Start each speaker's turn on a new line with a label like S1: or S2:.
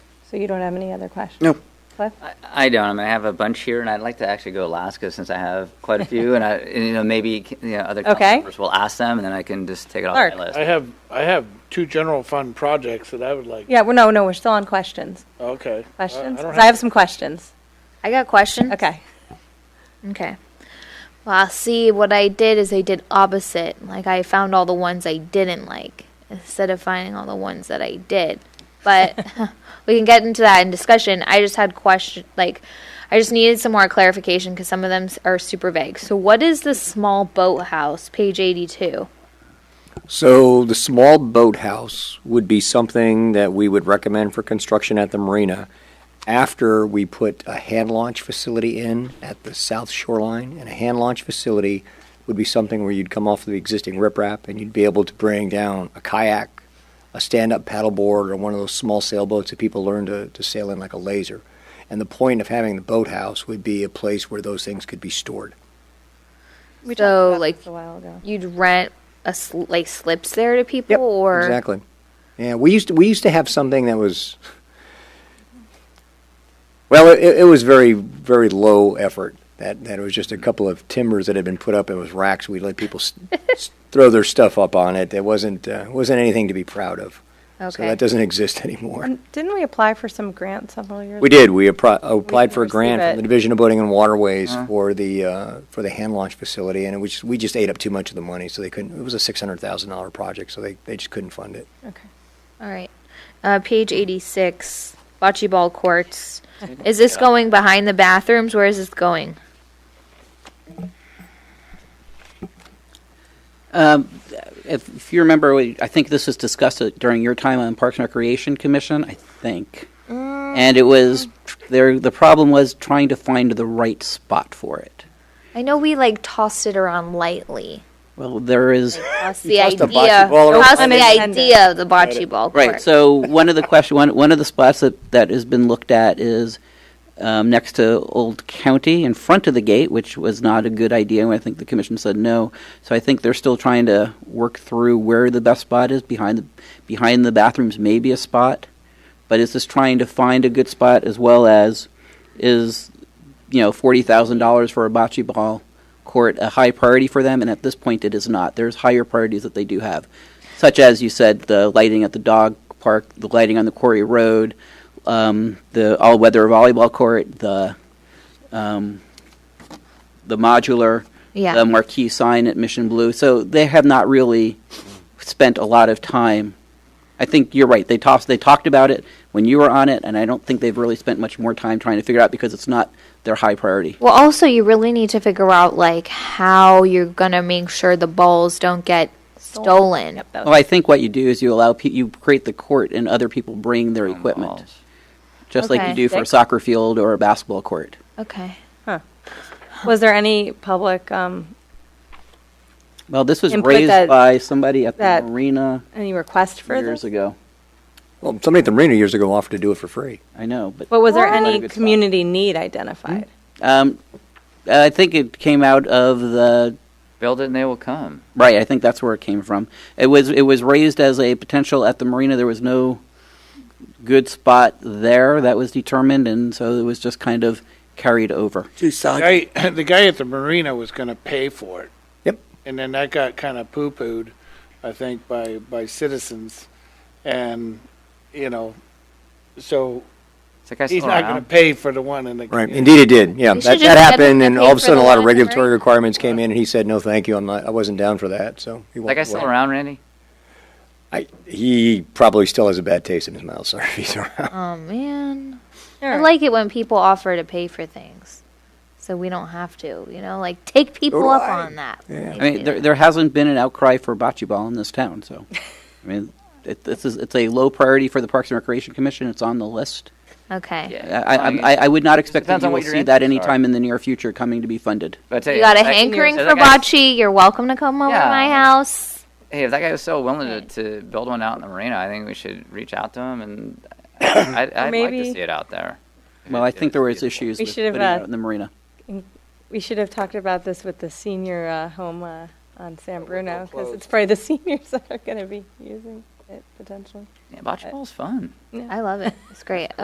S1: So you don't have any other questions?
S2: No.
S1: Cliff?
S3: I- I don't. I mean, I have a bunch here, and I'd like to actually go Alaska since I have quite a few, and I, and, you know, maybe you know, other council
S1: Okay.
S3: members will ask them, and then I can just take it off
S1: Clark.
S3: my list.
S4: I have, I have two general fund projects that I would like,
S1: Yeah, well, no, no, we're still on questions.
S4: okay. I-
S1: Questions?
S4: I don't
S1: 'Cause I have some questions.
S5: I got a question.
S1: Okay.
S5: Okay. Well, see, what I did is I did opposite. Like, I found all the ones I didn't like instead of finding all the ones that I did. But we can get into that in discussion. I just had question, like, I just needed some more clarification because some of them s- are super vague. So, what is the small boathouse, page 82?
S6: So the small boathouse would be something that we would recommend for construction at the marina after we put a hand launch facility in at the south shoreline. And a hand launch facility would be something where you'd come off the existing riprap and you'd be able to bring down a kayak, a stand-up paddleboard, or one of those small sailboats that people learn to, to sail in like a laser. And the point of having the boathouse would be a place where those things could be stored.
S1: We talked
S5: So,
S1: about
S5: like-
S1: this A while ago.
S5: You'd rent a sl- like slips there to people,
S6: Yep,
S5: or
S6: exactly. Yeah, we used to we used to have something that was well, it, it was very very low effort. That that it was just a couple of timbers that had been put up. It was racks. We let people s- s- throw their stuff up on it. It wasn't uh, wasn't anything to be proud of. So
S5: Okay.
S6: that doesn't exist anymore.
S1: And Didn't we apply for some grant several years?
S6: We
S1: ago?
S6: did. We appro- applied for a
S1: receive
S6: grant
S1: it.
S6: from the Division of Boating and Waterways for the uh, for the hand launch facility, and it was, we just ate up too much of the money, so they couldn't. It was a six hundred thousand dollar project, so they, they just couldn't fund it.
S1: Okay.
S5: All right. Uh, page 86, bocce ball courts. Is this going behind the bathrooms? Where is this going?
S7: Um, if, if you remember, we, I think this was discussed at- during your time on Parks and Recreation Commission, I think. And it was tr- there. The problem was trying to find the right spot for it.
S5: I know we like tossed it around lightly.
S7: Well, there is
S5: Tossed the
S6: tossed a
S5: idea.
S6: bocce ball around
S5: Tossed the
S1: lightly.
S5: idea of the bocce ball court.
S7: right. So one of the question, one one of the spots that that has been looked at is um, next to Old County, in front of the gate, which was not a good idea. and I think the commission said no. So I think they're still trying to work through where the best spot is. Behind the behind the bathrooms, maybe a spot, but it's just trying to find a good spot as well as is you know forty thousand dollars for a bocce ball court a high priority for them and at this point it is not there's higher priorities that they do have such as you said the lighting at the dog park the lighting on the quarry road um, the all-weather volleyball court the um, the modular
S5: Yeah.
S7: the marquee sign at mission blue so they have not really spent a lot of time I think you're right. They tossed, they talked about it when you were on it, and I don't think they've really spent much more time trying to figure it out because it's not their high priority.
S5: Well, also, you really need to figure out like how you're gonna make sure the balls don't get stolen.
S1: Yep, that
S7: Well, Oh, I think what you do is you allow pe- you create the court and other people bring their equipment,
S3: Balls.
S7: just like
S5: Okay.
S7: you do for a soccer field or a basketball court.
S5: Okay.
S1: was- Was there any public, um,
S7: Well, this was
S1: And put
S7: raised
S1: that-
S7: by somebody at the
S1: that
S7: marina
S1: any request for
S7: years
S1: this?
S7: ago.
S6: Well, somebody at the marina years ago offered to do it for free.
S7: I know, but
S1: But was there
S7: Not a
S1: any
S7: good spot.
S1: community need identified?
S7: Um, I think it came out of the
S3: Build it and they will come.
S7: Right, I think that's where it came from. It was it was raised as a potential at the marina. There was no good spot there that was determined, and so it was just kind of carried over.
S2: Two sides.
S4: The guy, the guy at the marina was going to pay for it.
S6: Yep.
S4: And then that got kind of poo pooed, I think, by, by citizens. And, you know, so
S3: It's like I
S4: he's
S3: still
S4: not going
S3: around.
S4: to pay for the one in the.
S6: Right. Indeed, it did. Yeah,
S5: We should
S6: that,
S5: just
S6: that
S5: get them
S6: happened,
S5: to
S6: and
S5: pay
S6: all of a
S5: for
S6: sudden,
S5: the
S6: a lot of
S5: lawn,
S6: regulatory
S5: right?
S6: requirements came in, and he said, "No, thank you. I'm not. I wasn't down for that." So he
S3: Like I
S6: walked
S3: still
S6: away.
S3: around, Randy.
S6: I, he probably still has a bad taste in his mouth. Sorry, if he's around.
S5: Oh man,
S1: All
S5: Hmm. I
S1: right.
S5: like it when people offer to pay for things, so we don't have to. You know, like take people up
S6: Right.
S5: on that.
S6: Yeah.
S7: I mean, there, there hasn't been an outcry for bocce ball in this town, so I mean, it, this is it's a low priority for the Parks and Recreation Commission. It's on the list.
S5: okay.
S3: Yeah.
S7: I I,
S3: Fine.
S7: I, I would not expect that
S3: depends
S7: you
S3: on
S7: will
S3: what your
S7: see that
S3: interests are.
S7: anytime in the near future coming to be funded.
S3: But I tell
S5: You got a
S3: that-
S5: hankering
S3: that
S5: for
S3: guy-
S5: bocce? You're welcome to come over to
S3: Yeah.
S5: my house.
S3: Hey, if that guy was so willing to, to build one out in the marina, I think we should reach out to him and I, I'd, I'd like to
S1: maybe-
S3: see it out there.
S7: Well, I think there was
S3: issues.
S7: issues
S1: We
S7: with
S1: should have,
S7: putting it
S1: uh,
S7: out in the marina.
S1: We should have talked about this with the senior uh, home uh, on San Bruno, because it's probably the seniors that are going to be using it potentially.
S3: Yeah, bocce ball's fun.
S5: I love it. It's great.